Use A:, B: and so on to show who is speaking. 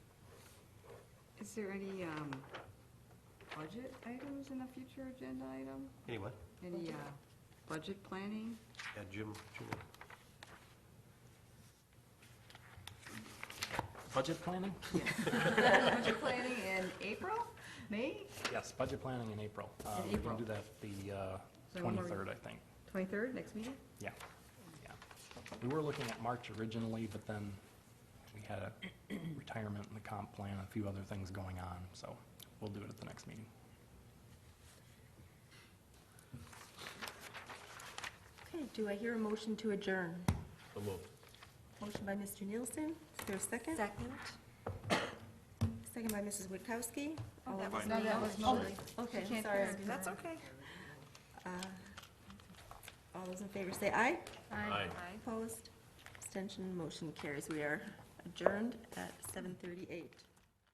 A: Is there any um, budget items in the future agenda item?
B: Anyway,
A: Any uh, budget planning?
B: yeah, Jim, Jim.
C: Budget planning?
A: Budget planning in April, May,
C: Yes, budget planning in April. Uh,
A: In
C: We're
A: April.
C: going to do that the uh,
A: So one more-
C: 23rd, I think.
A: 23rd, next meeting?
C: Yeah, yeah. We were looking at March originally, but then we had a retirement and the comp plan, a few other things going on, so we'll do it at the next meeting.
D: Okay, do I hear a motion to adjourn?
B: So moved.
D: Motion by Mr. Nielsen, is there a second?
E: Second.
D: Second by Mrs. Witkowski. All in-
E: was
A: No,
E: me.
A: that was Molly. She
D: Okay, I'm
A: can't
D: sorry.
A: hear.
E: That's okay.
D: Uh, All those in favor say aye.
B: Aye.
E: Aye.
D: Opposed? Abstention, motion carries. We are adjourned at 7:38.